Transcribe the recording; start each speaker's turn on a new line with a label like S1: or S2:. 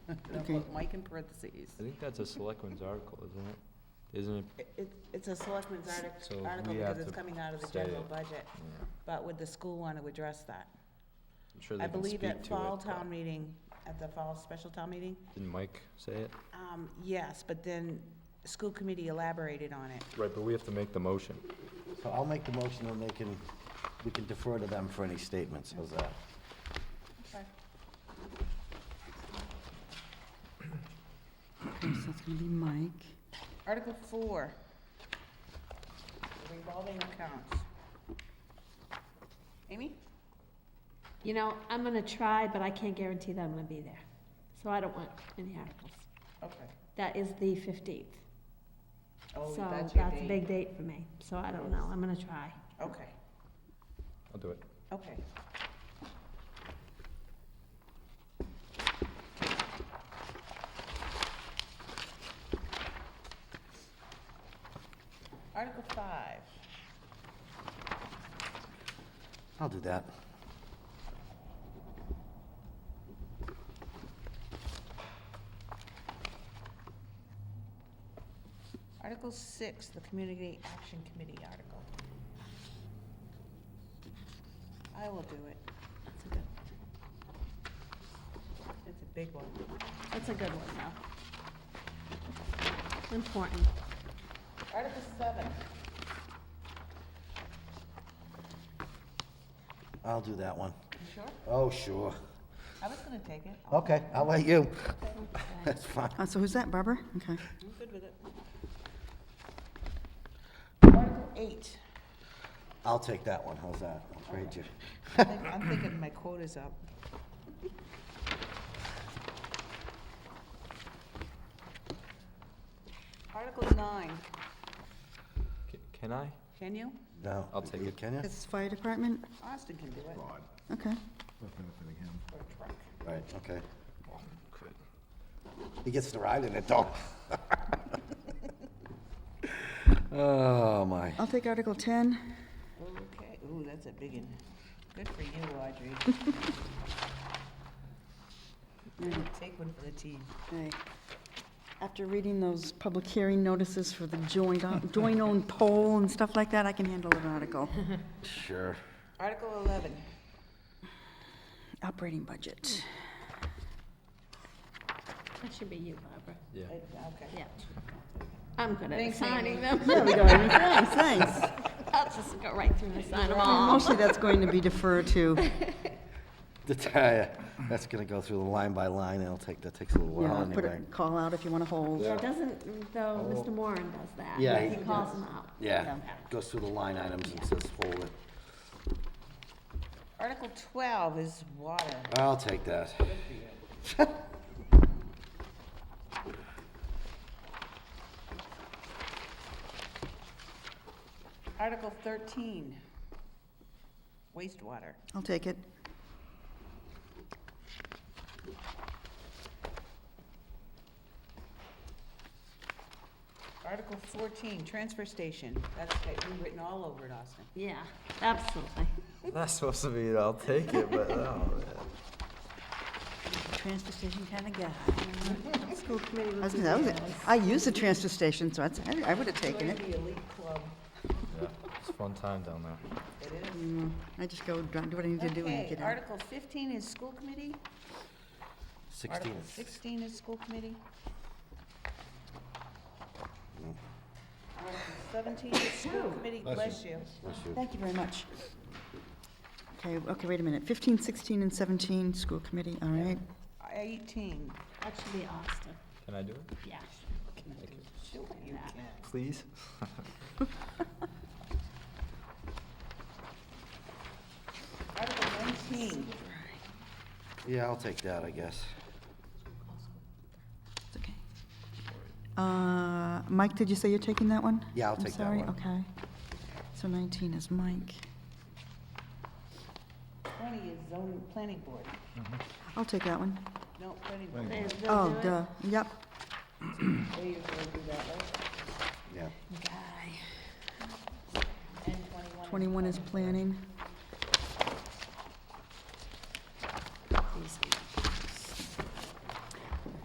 S1: And I'll
S2: Okay.
S1: put Mike in parentheses.
S3: I think that's a selectman's article, isn't it? Isn't it?
S1: It- It's, it's a selectmen's artic-
S3: So
S1: article
S3: we
S1: because
S3: have
S1: it's
S3: to
S1: coming out of the
S3: say
S1: general
S3: it.
S1: budget,
S3: Yeah.
S1: but would the school want to address that?
S3: I'm sure they
S1: I
S3: can
S1: believe
S3: speak to it.
S1: at fall
S3: but-
S1: town meeting, at the fall special town meeting,
S3: Didn't Mike say it?
S1: um, yes, but then school committee elaborated on it.
S3: Right, but we have to make the motion.
S2: So I'll make the motion and they can, we can defer to them for any statements, how's that?
S4: Okay, so it's gonna be Mike.
S1: Article four, revolving accounts. Amy?
S5: You know, I'm gonna try, but I can't guarantee that I'm gonna be there. So I don't want any articles.
S1: Okay.
S5: That is the fifteenth.
S1: Oh,
S5: So
S1: that's
S5: that's
S1: your
S5: a
S1: date.
S5: big date for me, so I don't know, I'm gonna try.
S1: Okay,
S3: I'll do it.
S1: okay. Article five,
S2: I'll do that.
S1: Article six, the Community Action Committee article. I will do it. It's a good. It's a big one.
S5: That's a good one, though. Important.
S1: Article seven,
S2: I'll do that one.
S1: you sure?
S2: Oh, sure.
S1: I was gonna take it. I'll-
S2: Okay, I'll let you. That's fine.
S4: Uh, so who's that, Barbara? Okay.
S1: I'm good with it. Article eight,
S2: I'll take that one, how's that? I'll trade you.
S1: I think- I'm thinking my quota's up. Article nine,
S3: C- Can I?
S1: can you?
S2: No.
S3: I'll take it.
S2: Can you?
S4: It's fire department?
S1: Austin can do it, or
S4: Okay.
S1: a truck.
S2: Right, okay.
S3: Oh, Good.
S2: He gets to ride in it, though. Oh, my.
S4: I'll take Article 10.
S1: Okay, ooh, that's a big one. Good for you, Audrey. Take one for the team.
S4: Hey, After reading those public hearing notices for the joint, joint-owned poll and stuff like that, I can handle an article.
S2: Sure.
S1: Article eleven,
S4: Operating budget.
S5: That should be you, Barbara.
S3: Yeah.
S1: Uh, okay.
S5: Yeah. I'm good at
S1: Thanks,
S5: signing
S1: Amy.
S5: them.
S4: There we go. Thanks, thanks.
S5: I'll just go right through and sign them all.
S4: Mostly that's going to be deferred to,
S2: To tell ya, that's gonna go through the line by line, it'll take, that takes a little
S4: you
S2: while
S4: know, put a
S2: anyway.
S4: call out if you want to hold.
S5: Yeah, doesn't, though, Mr. Moran does that.
S2: Yeah,
S5: He
S2: he
S5: calls them out.
S2: Yeah, goes through the line items and says, hold it.
S1: Article twelve is water.
S2: I'll take that.
S1: Article thirteen, wastewater.
S4: I'll take it.
S1: Article fourteen, transfer station. That's, that you've written all over it, Austin.
S5: Yeah, absolutely.
S3: Not supposed to be, it, I'll take it, but, oh, man.
S4: Transfer station kind of guy. School committee. I was gonna- I was- I use the transfer station, so I'd say- I would have taken it.
S1: The elite club.
S3: Yeah, It's a fun time down there.
S1: It is.
S4: I just go dr- do what I need to do and
S1: Okay,
S4: get out.
S1: Article fifteen is school committee.
S2: Sixteen.
S1: Article sixteen is school committee. Article seventeen is school committee, bless you.
S4: Thank you very much. Okay, okay, wait a minute. 15, 16, and 17, school committee, all right.
S1: Eighteen.
S5: That should be Austin,
S3: Can I do it?
S5: yeah.
S1: Sure you can.
S3: Please?
S1: Article nineteen,
S2: Yeah, I'll take that, I guess.
S4: It's okay. Uh, Mike, did you say you're taking that one?
S2: Yeah, I'll take that one.
S4: I'm sorry, okay. So 19 is Mike.
S1: twenty is zoning, planning board.
S4: I'll take that one.
S1: No, planning board.
S5: They- they'll
S4: Oh,
S5: do it.
S4: duh, yep.
S1: They usually do that, right?
S2: Yeah.
S1: And twenty-one.
S4: 21 is planning.